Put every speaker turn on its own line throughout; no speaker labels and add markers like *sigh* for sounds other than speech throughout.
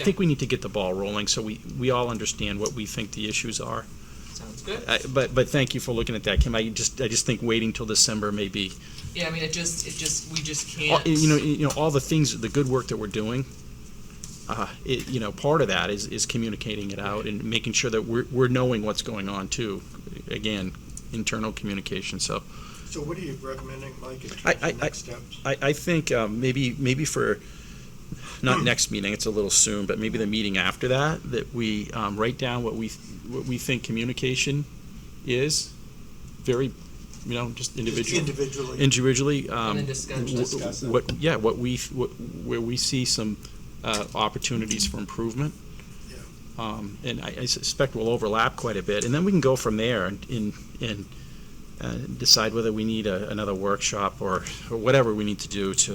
I think we need to get the ball rolling so we, we all understand what we think the issues are.
Sounds good.
I- But, but thank you for looking at that, Kim. I just, I just think waiting till December may be,
Yeah, I mean, it just, it just, we just
all-
can't.
Oh, you know, you know, all the things, the good work that we're doing, uh, it, you know, part of that is, is communicating it out and making sure that we're, we're knowing what's going on too. Again, internal communication, so.
So what are you recommending, Mike, in terms
I- I-
of next steps?
I, I think um, maybe maybe for not next meeting, it's a little soon, but maybe the meeting after that, that we um, write down what we what we think communication is, very, you know, just
Just
individual
Individually,
individually. Um,
then discuss-
wh-
discuss it.
what yeah, what we what, where we see some uh, opportunities for improvement.
Yeah.
Um, and I, I suspect we'll overlap quite a bit, and then we can go from there and and, and uh, decide whether we need a, another workshop or, or whatever we need to do to.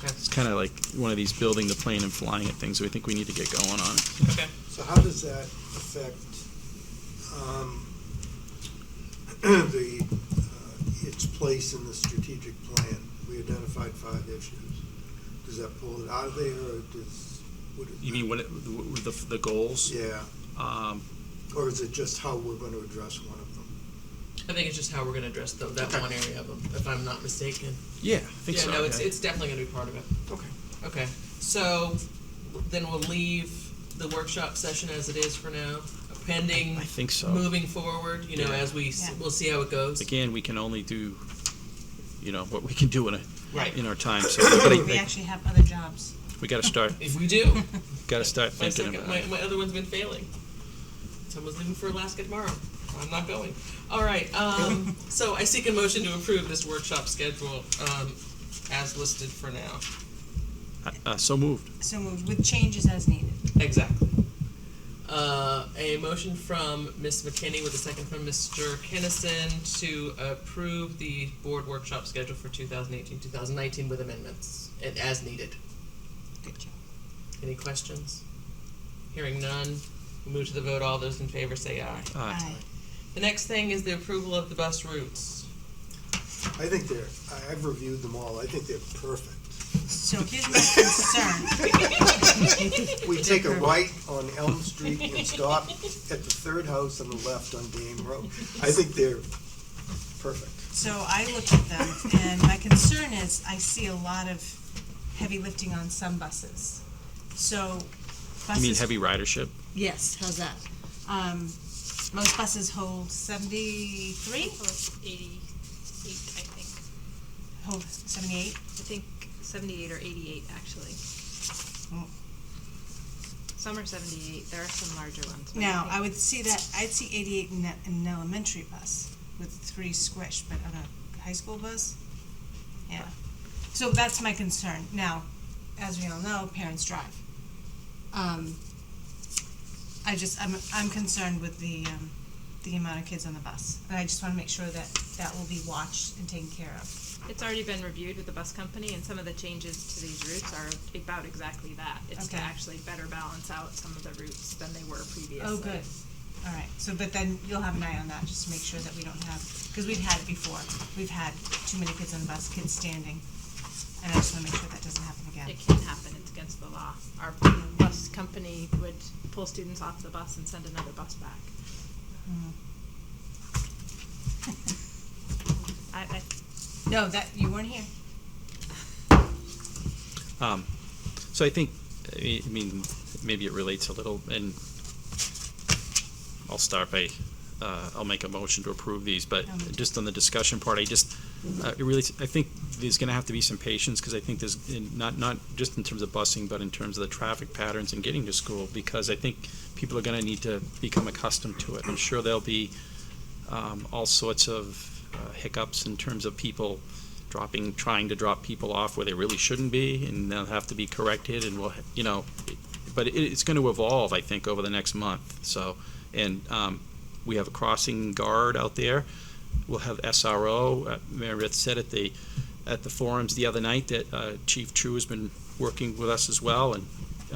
Okay,
It's kind of like one of these building the plane and flying it things. that We think we need to get going on.
okay.
so how does that affect um, *clears throat* the, uh, its place in the strategic plan? We identified five issues. Does that pull it out of there, or does, would it?
You mean what the the goals?
Yeah,
Um,
or is it just how we're going to address one of them?
I think it's just how we're gonna address though, that one area of them, if I'm not mistaken.
yeah, I think
Yeah,
so.
no, it's,
yeah.
it's definitely gonna be part of it.
Okay.
Okay, so then we'll leave the workshop session as it is for now, pending
I think so.
moving forward, you know,
Yeah.
as we, s-
Yeah.
we'll see how it goes.
Again, we can only do, you know, what we can do in a
Right.
in our time. So but I-
We
I-
actually have other jobs.
we got to start.
If we do,
Got to start
my
thinking
second,
about.
my,
it.
my other one's been failing. Someone's leaving for Alaska tomorrow. I'm not going. All right,
*laughs*
um, so I seek a motion to approve this workshop schedule, um, as listed for now.
Uh, so moved.
So moved with changes as needed.
Exactly. Uh, a motion from Ms. McKinney with a second from Mr. Kinnison to approve the board workshop schedule for 2018, 2019 with amendments and as needed.
Good job.
Any questions? Hearing none, we move to the vote. All those in favor say aye.
Aye.
The next thing is the approval of the bus routes.
I think they're, I- I've reviewed them all, I think they're perfect.
So here's my concern.
We take a right on Elm Street and stop at the third house on the left on Dame Road. I think they're perfect.
So I look at them and my concern is I see a lot of heavy lifting on some buses. So
You mean
buses,
heavy ridership?
yes, how's that? Um, most buses hold seventy-three,
Well, it's eighty-eight, I think.
hold seventy-eight.
I think seventy-eight or eighty-eight, actually.
Oh.
Some are seventy-eight, there are some larger ones. but
Now,
think-
I would see that, I'd see eighty-eight in, a- in an elementary bus with three squished, but on a high school bus? Yeah, so that's my concern. Now, as we all know, parents drive. Um, I just, I'm, I'm concerned with the, um, the amount of kids on the bus, and I just wanna make sure that that will be watched and taken care of.
It's already been reviewed with the bus company and some of the changes to these routes are about exactly that. It's to
Okay.
actually better balance out some of the routes than they were previously.
Oh, good, alright, so, but then you'll have an eye on that, just to make sure that we don't have, cause we've had it before, we've had too many kids on the bus, kids standing, and I just wanna make sure that doesn't happen again.
It can happen, it's against the law. Our bus company would pull students off the bus and send another bus back. I, I,
Mm-hmm. No, that, you weren't here.
Um, so I think, I mean, maybe it relates a little, and I'll start by, uh, I'll make a motion to approve these, but
Um.
just on the discussion part, I just, uh, it really, I think there's gonna have to be some patience, because I think there's, in- not, not just in terms of busing, but in terms of the traffic patterns and getting to school, because I think people are gonna need to become accustomed to it. I'm sure there'll be, um, all sorts of uh, hiccups in terms of people dropping, trying to drop people off where they really shouldn't be, and they'll have to be corrected, and we'll, you know, but it, it's going to evolve, I think, over the next month. So, and um, we have a crossing guard out there. We'll have SRO. Uh, Meredith said at the at the forums the other night that uh, Chief True has been working with us as well and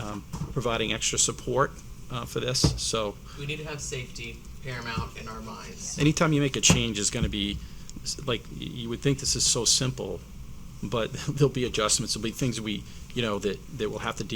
um, providing extra support uh, for this. So,
We need to have safety paramount in our minds.
anytime you make a change is going to be *laughs* like you would think this is so simple but there'll be adjustments there'll be things we you know, that, that will have to deal